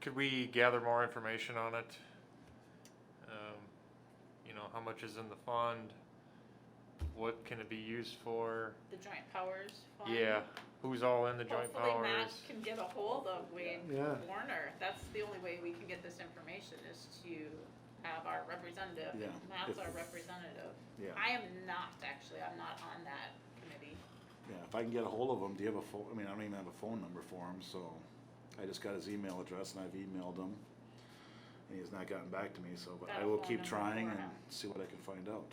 could we gather more information on it? Um, You know, how much is in the fund? What can it be used for? The joint powers fund. Yeah, who's all in the joint Hopefully Matt powers? can get a hold of Wade Yeah. Warner. That's the only way we can get this information is to have our representative. Yeah, and Matt's if- our representative. Yeah, I am not, actually, I'm not on that committee. yeah, if I can get a hold of him, do you have a phone, I mean, I don't even have a phone number for him, so I just got his email address and I've emailed him. And he's not gotten back to me, so, but Got I a will phone keep number trying for and him. see what I can find out.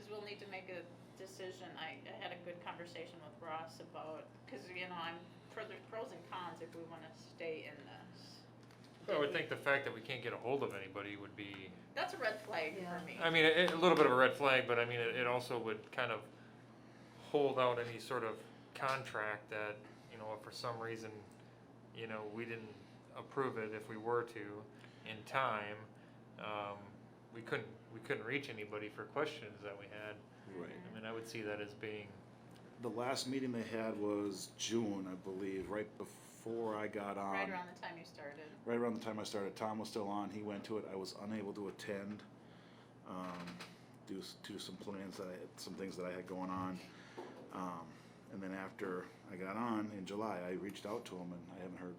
Cause we'll need to make a decision. I, I had a good conversation with Ross about, cause you know, I'm, pro- there's pros and cons if we wanna stay in this. I would think the fact that we can't get a hold of anybody would be, That's a red flag for me. I mean, a, a little bit of a red flag, but I mean, it, it also would kind of hold out any sort of contract that, you know, if for some reason, you know, we didn't approve it if we were to in time, um, we couldn't, we couldn't reach anybody for questions that we had. Right. I mean, I would see that as being, The last meeting they had was June, I believe, right before I got on. Right around the time you started. right around the time I started. Tom was still on. He went to it. I was unable to attend. Um, due s- to some plans that I had, some things that I had going on. Um, and then after I got on in July, I reached out to him and I haven't heard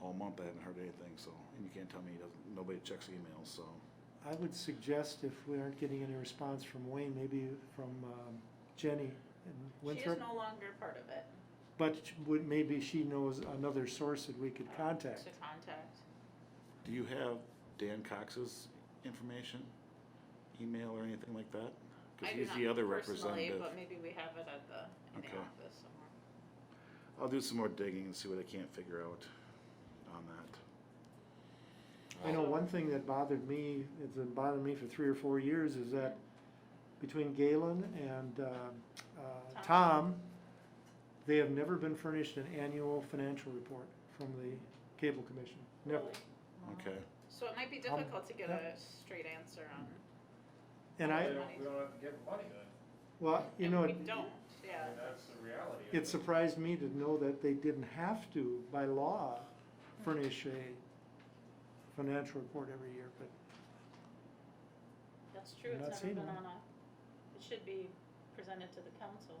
all month. I haven't heard anything. So, and you can't tell me he doesn't, nobody checks emails. So, I would suggest if we aren't getting any response from Wayne, maybe from um, Jenny and She is Winthrop. no longer part of it. But sh- would, maybe she knows another source that we could contact. To contact. do you have Dan Cox's information, email or anything like that? I Because do he's not the other personally, representative. But maybe we have it at the, in the Okay. office somewhere. I'll do some more digging and see what I can't figure out on that. I know one thing that bothered me, it's been bothering me for three or four years, is that between Galen and uh, uh, Tom, they have never been furnished an annual financial report from the cable commission, never. Okay. So it might be Um, difficult to get yeah. a straight answer on. And I, We don't, we don't get money then, well, you and know, We it- don't, yeah. and that's the reality. of It surprised me to know that they didn't have to, by law, furnish a financial report every year, but That's true, I'm not it's never seeing been one. on a, it should be presented to the council,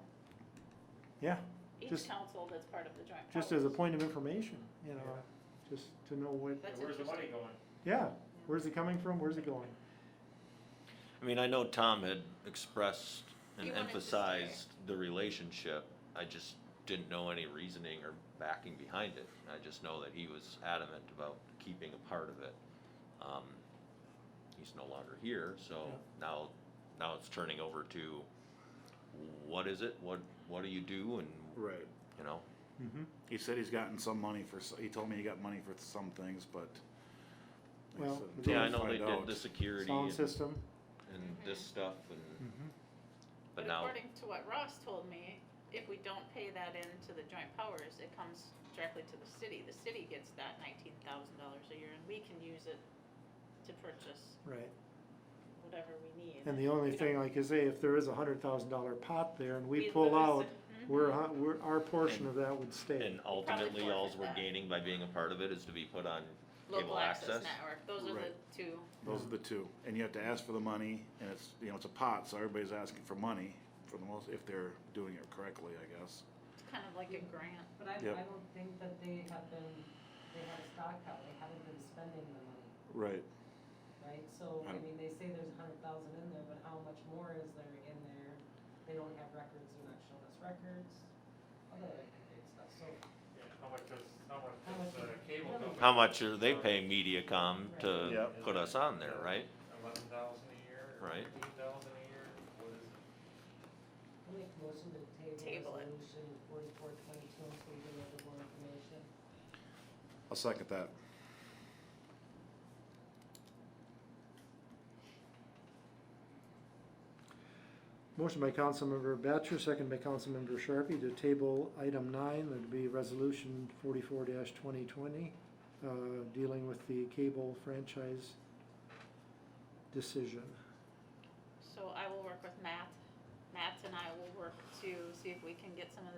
yeah, each Just- council that's part of the joint powers. just as a point of information, you know, just to know what, Yeah, That's Where's the money interesting. going? yeah, where's it coming from, where's it going? I mean, I know Tom had expressed He and wanted to stay. emphasized the relationship. I just didn't know any reasoning or backing behind it. I just know that he was adamant about keeping a part of it. Um, he's no longer here, so Yeah. now, now it's turning over to what is it? What, what do you do? And, Right. you know, Mhm. He said he's gotten some money for, s- he told me he got money for some things, but. like I Well, said, We'll yeah, I until we know they find did out- the security Sound and, system, and this stuff and, mhm. but But now, according to what Ross told me, if we don't pay that into the joint powers, it comes directly to the city. The city gets that nineteen thousand dollars a year and we can use it to purchase right, whatever we need. and the only thing, like you say, if there is a hundred thousand dollar pot there and we pull out, lose it. Mhm. we're, hu- we're, our portion of that would stay. and ultimately, forfeit alls we're that. gaining by being a part of it is to be put on Local cable access access. network, those are the Right. two. Those are the two, and you have to ask for the money, and it's, you know, it's a pot, so everybody's asking for money for the most, if they're doing it correctly, I guess. It's kind of like a grant. But I, Yep. I don't think that they have been, they have a stock out, they haven't been spending the money, Right. right? So, I I don't- mean, they say there's a hundred thousand in there, but how much more is there in there? They don't have records, they're not showing us records, other great stuff, so. Yeah, How much does, how much How does much- uh, cable how company? How much are they paying MediaCom to Yep. put us on there, right? Eleven thousand a year? Right. Fifteen thousand a year? What is it? I'll make a motion to Table table it. resolution forty-four twenty-two until we get a little more information. I'll second that. Motion by Councilmember Batchor, second by Councilmember Sharpie to table item nine, that'd be resolution forty-four twenty twenty, uh, dealing with the cable franchise decision. So I will work with Matt. Matt and I will work to see if we can get some of